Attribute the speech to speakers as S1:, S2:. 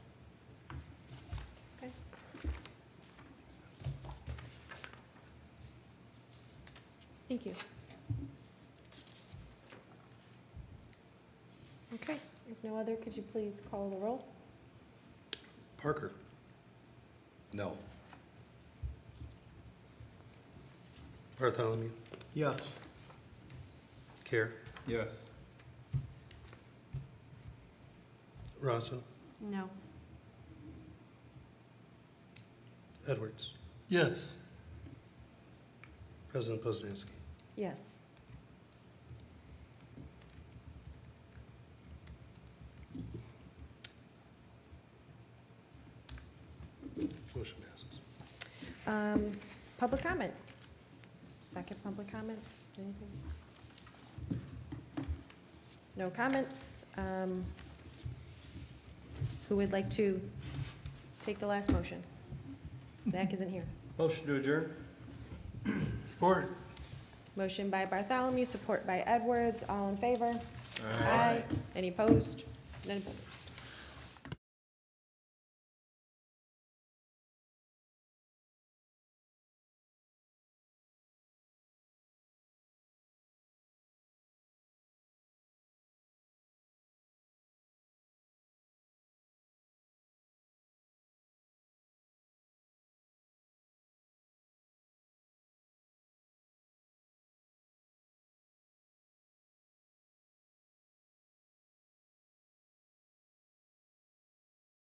S1: Thank you. Okay, if no other, could you please call the roll?
S2: Parker? No. Bartholomew?
S3: Yes.
S2: Care?
S3: Yes.
S2: Rosso?
S1: No.
S2: Edwards?
S3: Yes.
S2: President Poznanski?
S1: Yes.
S2: Motion passes.
S1: Um, Public comment? Second public comment? Anything? No comments. Um, Who would like to take the last motion? Zach isn't here.
S3: Motion to adjourn. Support.
S1: Motion by Bartholomew, support by Edwards. All in favor? Any opposed? None opposed.